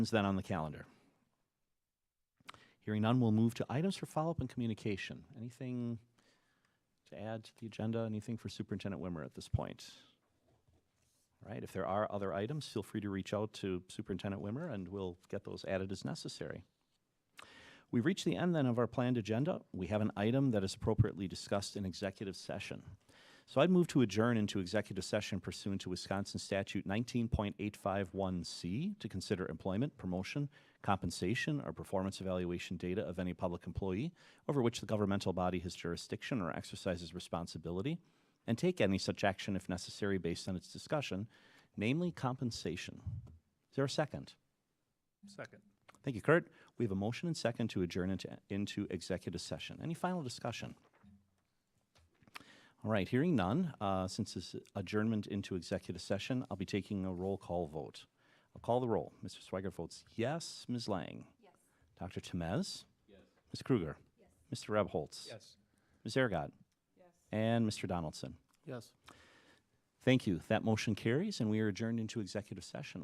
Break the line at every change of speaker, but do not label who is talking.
then on the calendar? Hearing none, we'll move to items for follow-up and communication. Anything to add to the agenda? Anything for Superintendent Wimmer at this point? All right, if there are other items, feel free to reach out to Superintendent Wimmer, and we'll get those added as necessary. We've reached the end then of our planned agenda. We have an item that is appropriately discussed in executive session. So I'd move to adjourn into executive session pursuant to Wisconsin Statute 19.851C to consider employment, promotion, compensation, or performance evaluation data of any public employee over which the governmental body has jurisdiction or exercises responsibility, and take any such action if necessary based on its discussion, namely compensation. Is there a second?
Second.
Thank you, Kurt. We have a motion and second to adjourn into, into executive session. Any final discussion? All right, hearing none, uh, since this adjournment into executive session, I'll be taking a roll call vote. I'll call the roll. Mr. Swiger votes yes. Ms. Lang? Yes. Dr. Temez? Yes. Ms. Kruger? Yes. Mr. Rebholz?
Yes.
Ms. Aragon? Yes. And Mr. Donaldson?
Yes.
Thank you. That motion carries, and we are adjourned into executive session.